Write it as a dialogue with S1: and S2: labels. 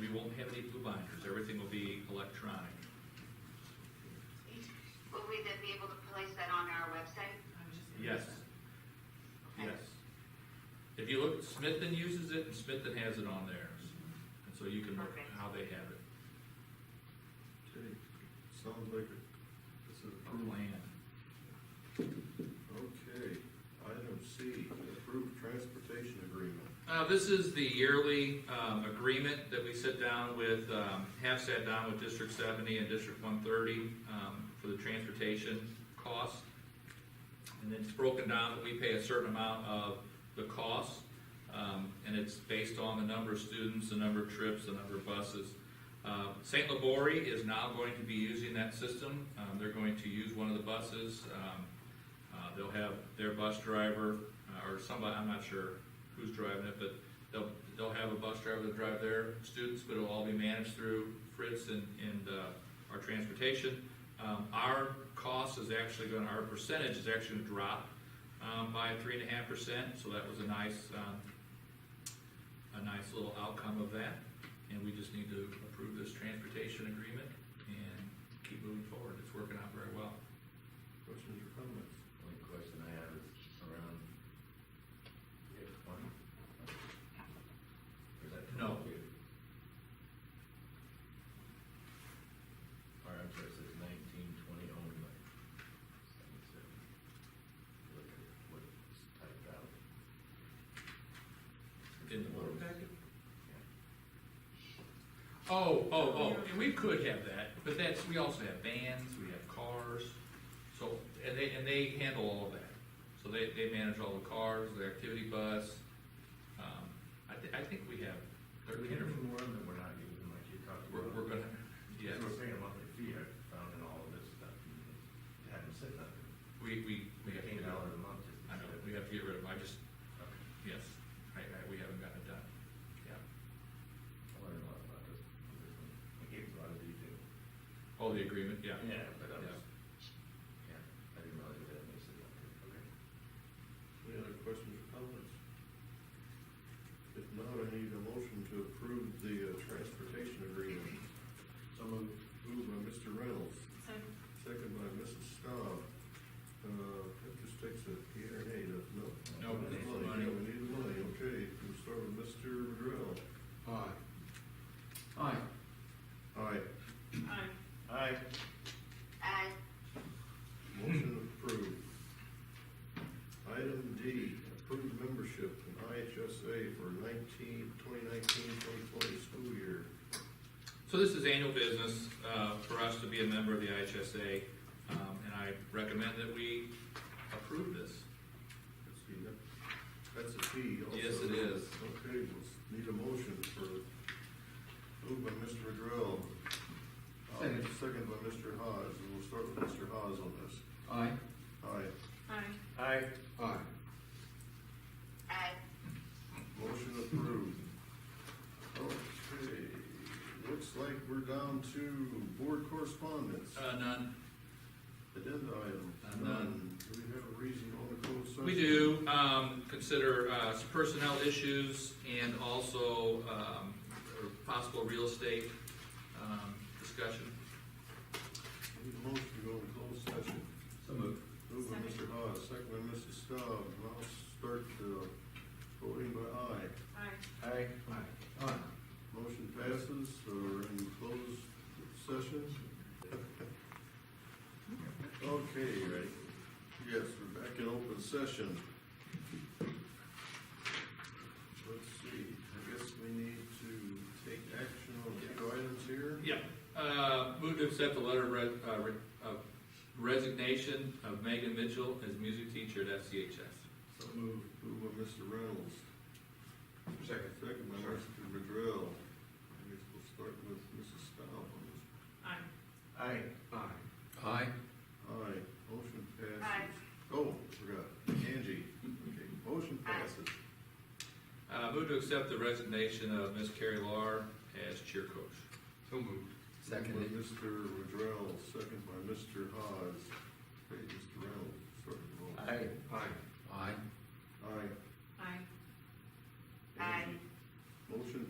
S1: we won't have any blue binders, everything will be electronic.
S2: Will we then be able to place that on our website?
S1: Yes, yes. If you look, Smithton uses it, and Smithton has it on theirs, and so you can look
S2: Perfect.
S1: how they have it,
S3: Okay, sounds like it- it's an
S1: a
S3: approved.
S1: plan.
S3: Okay, item C, approved transportation agreement.
S1: Uh, this is the yearly, um, agreement that we sit down with, um, have sat down with District seventy and District one thirty, um, for the transportation cost. And it's broken down that we pay a certain amount of the cost, um, and it's based on the number of students, the number of trips, the number of buses. Uh, St. Labori is now going to be using that system. Um, they're going to use one of the buses. Um, uh, they'll have their bus driver, uh, or somebody, I'm not sure who's driving it, but they'll, they'll have a bus driver to drive their students, but it'll all be managed through Fritz and, and, uh, our transportation. Um, our cost is actually gonna, our percentage is actually gonna drop, um, by three and a half percent, so that was a nice, um, a nice little outcome of that. And we just need to approve this transportation agreement and keep moving forward. It's working out very well.
S3: Questions or comments?
S4: Only question I have is around, you have twenty? Or is that
S1: No.
S4: twenty-two? Or I'm sorry, it says nineteen, twenty only. Seventy-seven. Look at what it's typed out.
S1: In the board
S4: packet?
S1: Oh, oh, oh, and we could have that, but that's, we also have vans, we have cars, so, and they, and they handle all of that. So they, they manage all the cars, the activity bus, um, I thi- I think we have
S4: Are we
S1: thirteen or,
S4: getting one that we're not using, like you talked
S1: we're,
S4: about?
S1: we're gonna, yes,
S4: Because We're paying a monthly fee, I found in all of this stuff, and it hadn't said nothing.
S1: we, we, we have to,
S4: Eighteen
S1: get rid of-
S4: dollars a month just. to
S1: I know,
S4: sit
S1: we
S4: there.
S1: have to get rid of, them. I just,
S4: Okay.
S1: yes, I, I, we haven't gotten it done, yeah.
S4: I learned a lot about this. I gave a lot of detail.
S1: Oh, the agreement, yeah.
S4: Yeah, but I
S1: Yeah.
S4: was, yeah, I didn't realize it had any significance. Okay.
S3: Any other questions or comments? If not, I need a motion to approve the uh, transportation agreement. Someone moved by Mr. Reynolds, second by Mrs. Staub. Uh, that just takes a yea or nay, doesn't it?
S1: No, we need the money.
S3: Yeah, We need the money, okay, we'll start with Mr. Madrell.
S5: Aye. Aye.
S6: Aye.
S3: Aye.
S4: Aye.
S2: Uh,
S3: Motion approved. Item D, approved membership in IHSA for 19 2019-2020 school year.
S1: So this is annual business uh, for us to be a member of the IHSA, um, and I recommend that we approve this.
S3: Let's see, that, that's a fee also.
S1: Yes, it is.
S3: Okay, we'll need a motion for, moved by Mr. Madrell. Uh,
S5: Second.
S3: Second by Mr. Hawes, and we'll start with Mr. Hawes on this.
S5: Aye.
S3: Aye.
S6: Aye.
S4: Aye.
S5: Aye.
S2: uh,
S3: Motion approved. Okay, looks like we're down to board correspondence.
S1: Uh, None.
S3: Agenda item.
S1: Uh, none.
S3: Do we have a reason on the closed session?
S1: We do um, consider uh, some personnel issues and also um, or possible real estate um, discussion.
S3: Need a motion to go into closed session.
S5: So moved.
S3: Moved by Mr. Hawes, second by Mrs. Staub, and I'll start the voting by aye.
S6: Aye.
S4: Aye.
S5: Aye. Aye.
S3: Motion passes, so we're in closed session. Okay, right, yes, we're back in open session. Let's see, I guess we need to take action on a few items here.
S1: Yeah, uh, move to accept the letter of re- uh, re- of resignation of Megan Mitchell as music teacher at FCHS.
S3: So moved. Moved by Mr. Reynolds.
S5: Second.
S3: Second by Mr. Madrell. I guess we'll start with Mrs. Staub on this.
S6: Aye.
S4: Aye.
S5: Aye. Aye.
S3: Aye, motion passes.
S2: Aye.
S3: Oh, forgot, Angie, okay, motion
S2: Aye.
S3: passes.
S1: Uh, Move to accept the resignation of Miss Carrie Lar as cheer coach.
S5: So moved.
S3: By
S5: Second.
S3: Mr. Madrell, second by Mr. Hawes. Hey, Mr. Reynolds, start the roll.
S4: Aye.
S5: Aye. Aye.
S3: Aye.
S6: Aye.
S2: Aye.
S3: Angie. Motion